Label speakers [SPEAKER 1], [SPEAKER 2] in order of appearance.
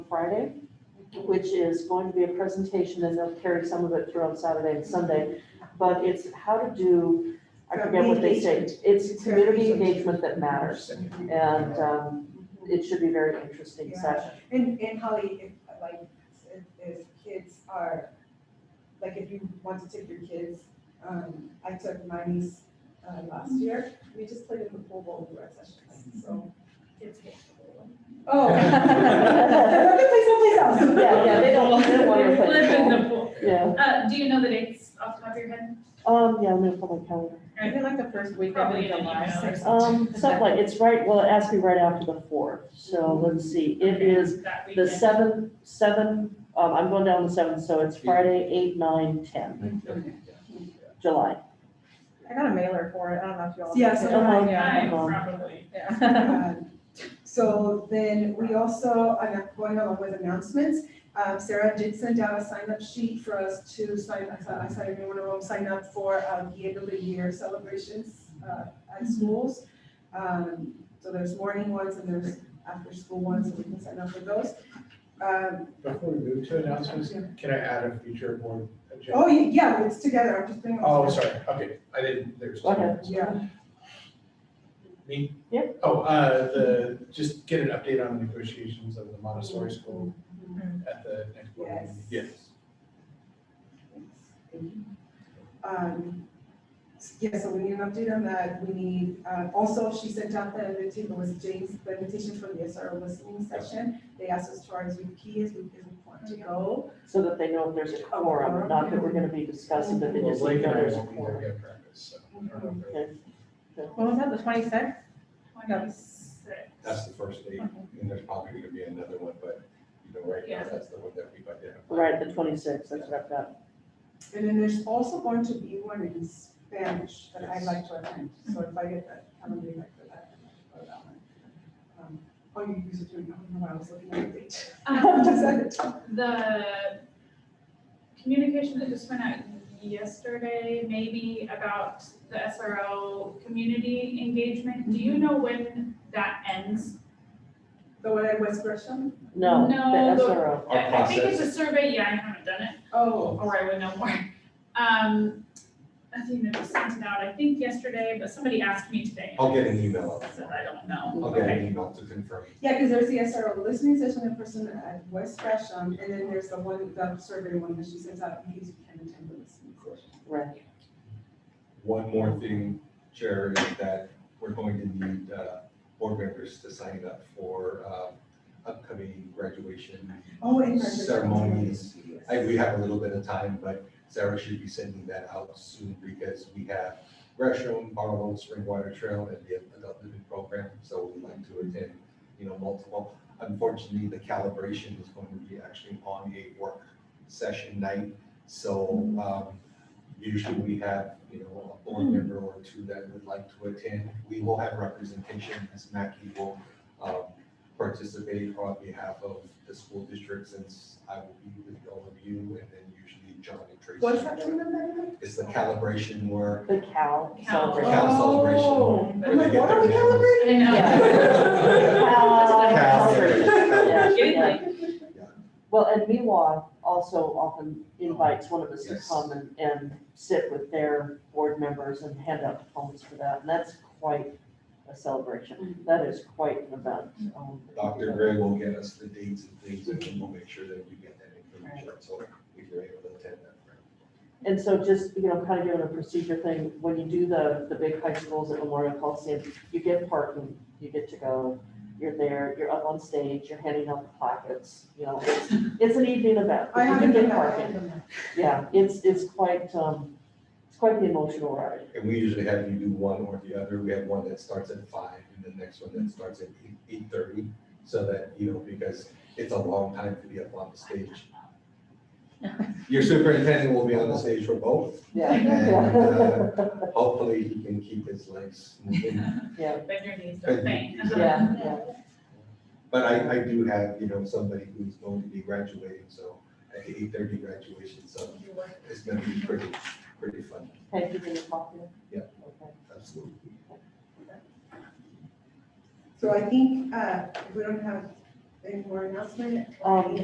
[SPEAKER 1] Friday, which is going to be a presentation, and they'll carry some of it throughout Saturday and Sunday. But it's how to do, I forget what they say, it's community engagement that matters. And um, it should be a very interesting
[SPEAKER 2] Yeah.
[SPEAKER 1] session.
[SPEAKER 2] And, and Holly, if, like, if, if kids are, like, if you want to take your kids, um, I took my niece, uh, last
[SPEAKER 1] Mm-hmm.
[SPEAKER 2] year, we just played in the pool bowl through our sessions, so. Kids get to play. Oh. Let me play someplace else.
[SPEAKER 1] Yeah, yeah, they don't, they don't want to
[SPEAKER 3] Flip in
[SPEAKER 1] play.
[SPEAKER 3] the pool.
[SPEAKER 1] Yeah,
[SPEAKER 3] Uh, do you know the dates off the top of your head?
[SPEAKER 1] um, yeah, I'm gonna pull my calendar.
[SPEAKER 4] Is it like the first week of
[SPEAKER 3] Probably in an
[SPEAKER 4] July?
[SPEAKER 3] email or
[SPEAKER 4] sixth?
[SPEAKER 1] Um, something like, it's right, well, it has to be right after the fourth, so let's see, it is
[SPEAKER 3] That
[SPEAKER 1] the
[SPEAKER 3] weekend.
[SPEAKER 1] seventh, seven, um, I'm going down the seventh, so it's Friday, eight, nine, ten, July.
[SPEAKER 4] I got a mailer for it, I don't know if you all.
[SPEAKER 2] Yes,
[SPEAKER 1] Oh my
[SPEAKER 3] I
[SPEAKER 1] God.
[SPEAKER 3] probably.
[SPEAKER 4] Yeah.
[SPEAKER 2] Um, So then we also, I'm going along with announcements. Um, Sarah did send out a sign up sheet for us to sign, I saw, I saw everyone at home sign up for um, the end of the year celebrations uh, at schools. Um, So there's morning ones and there's after school ones, so we can sign up for those. Um,
[SPEAKER 5] Before we move to announcements, can I add a future board
[SPEAKER 2] Oh,
[SPEAKER 5] agenda?
[SPEAKER 2] yeah, it's together, I'm just doing. all
[SPEAKER 5] Oh,
[SPEAKER 2] this.
[SPEAKER 5] sorry, okay, I didn't, there's.
[SPEAKER 1] Go ahead.
[SPEAKER 2] Yeah.
[SPEAKER 5] Me?
[SPEAKER 1] Yeah.
[SPEAKER 5] Oh, uh, the, just get an update on the negotiations of the Montessori school at the next board meeting.
[SPEAKER 2] Yes. Um, Yeah, so we need an update on that. We need, uh, also, she sent out the invitation, it was James, the invitation for the SR listening session. They asked us to RSVP as we as we want to go.
[SPEAKER 1] So that they know if there's a quorum, not that we're gonna be discussing, but they
[SPEAKER 5] Well,
[SPEAKER 1] just need
[SPEAKER 5] Blake
[SPEAKER 1] to
[SPEAKER 5] and
[SPEAKER 1] know
[SPEAKER 5] I
[SPEAKER 1] there's a
[SPEAKER 5] won't be there
[SPEAKER 1] quorum.
[SPEAKER 5] yet at practice, so. I don't know if they're-
[SPEAKER 4] When was that, the twenty-sixth?
[SPEAKER 3] Oh
[SPEAKER 6] That's the first date, and there's probably gonna be another one, but, you know, right now, that's the one that we've identified.
[SPEAKER 1] Right, the twenty-sixth, that's what I've got.
[SPEAKER 2] And then there's also going to be one in Spanish that I'd like to attend. So if I get that, I'm gonna be back for that. I'd like to go to that one. Um, Oh, you use it too, I don't know, why I was looking at the date.
[SPEAKER 3] Um, The communication that just went out yesterday, maybe about the SRO community engagement, do you
[SPEAKER 1] Mm-hmm.
[SPEAKER 3] know when that ends?
[SPEAKER 2] The one at West Gresham?
[SPEAKER 1] No, the
[SPEAKER 3] No, the-
[SPEAKER 1] SRO.
[SPEAKER 6] Our
[SPEAKER 3] I I think it's
[SPEAKER 6] process.
[SPEAKER 3] a survey, yeah, I haven't done it.
[SPEAKER 2] Oh,
[SPEAKER 3] or I would know more. Um, I think it was sent it out, I think yesterday, but somebody asked me today.
[SPEAKER 6] I'll get an email.
[SPEAKER 3] So I don't know.
[SPEAKER 6] I'll get an email to confirm.
[SPEAKER 2] Yeah, because there's the SRO listening session in person at West Gresham, and then there's the one, the survey one that she sends out, in case you can attend the listening session.
[SPEAKER 1] Right.
[SPEAKER 6] One more thing, Chair, is that we're going to need, uh, board members to sign up for, um, upcoming graduation.
[SPEAKER 2] Oh, and. graduation
[SPEAKER 6] Ceremonies.
[SPEAKER 2] ceremonies,
[SPEAKER 6] I,
[SPEAKER 2] yes.
[SPEAKER 6] we have a little bit of time, but Sarah should be sending that out soon because we have Gresham, Barlow, Springwater Trail, and the adult living program, so we'd like to attend, you know, multiple. Unfortunately, the calibration is going to be actually on a work session night, so, um, usually we have, you know, a board member or two that would like to attend. We will have representation, Ms. Mackey will, um, participate on behalf of the school district since I will be with all of you and then usually John and Tracy.
[SPEAKER 2] What's that one that?
[SPEAKER 6] It's the calibration work,
[SPEAKER 1] The Cal
[SPEAKER 3] Cal.
[SPEAKER 6] the
[SPEAKER 1] celebration.
[SPEAKER 6] cal celebration.
[SPEAKER 2] Oh, I'm like, what are we
[SPEAKER 6] calibrating?
[SPEAKER 3] I know.
[SPEAKER 1] Cal
[SPEAKER 6] Cal.
[SPEAKER 1] celebration, yeah,
[SPEAKER 3] Getting
[SPEAKER 1] yeah.
[SPEAKER 3] like,
[SPEAKER 1] Well, and MIWA also often invites one of us to
[SPEAKER 6] Yes.
[SPEAKER 1] come and, and sit with their board members and hand out diplomas for that, and that's quite a celebration.
[SPEAKER 3] Mm-hmm.
[SPEAKER 1] That is quite an event. um,
[SPEAKER 6] Dr. Gray will get us the dates and things and we'll make sure that we get that information. So if you're able to attend that.
[SPEAKER 1] And so just, you know, kind of giving a procedure thing, when you do the, the big high schools at Memorial Coliseum, you get parking, you get to go, you're there, you're up on stage, you're handing out the plaques, you know, it's, it's an evening event. but
[SPEAKER 2] I
[SPEAKER 1] you do
[SPEAKER 2] haven't
[SPEAKER 1] get
[SPEAKER 2] done that, I
[SPEAKER 1] parking.
[SPEAKER 2] haven't done that.
[SPEAKER 1] Yeah, it's, it's quite, um, it's quite the emotional ride.
[SPEAKER 6] And we usually have you do one or the other. We have one that starts at five and the next one that starts at eight thirty. So that, you know, because it's a long time to be up on the stage. Your superintendent will be on the stage for both
[SPEAKER 1] Yeah.
[SPEAKER 6] and
[SPEAKER 1] Yeah.
[SPEAKER 6] uh, hopefully he can keep his legs moving.
[SPEAKER 3] bend your knees, don't faint.
[SPEAKER 1] Yeah, yeah.
[SPEAKER 6] But I, I do have, you know, somebody who's going to be graduating, so at the eight thirty graduation, so it's gonna be pretty, pretty fun,
[SPEAKER 1] Thank you for your coffee.
[SPEAKER 6] Yeah.
[SPEAKER 1] Okay.
[SPEAKER 6] absolutely.
[SPEAKER 2] So I think, uh, if we don't have Any more announcement?
[SPEAKER 1] Um,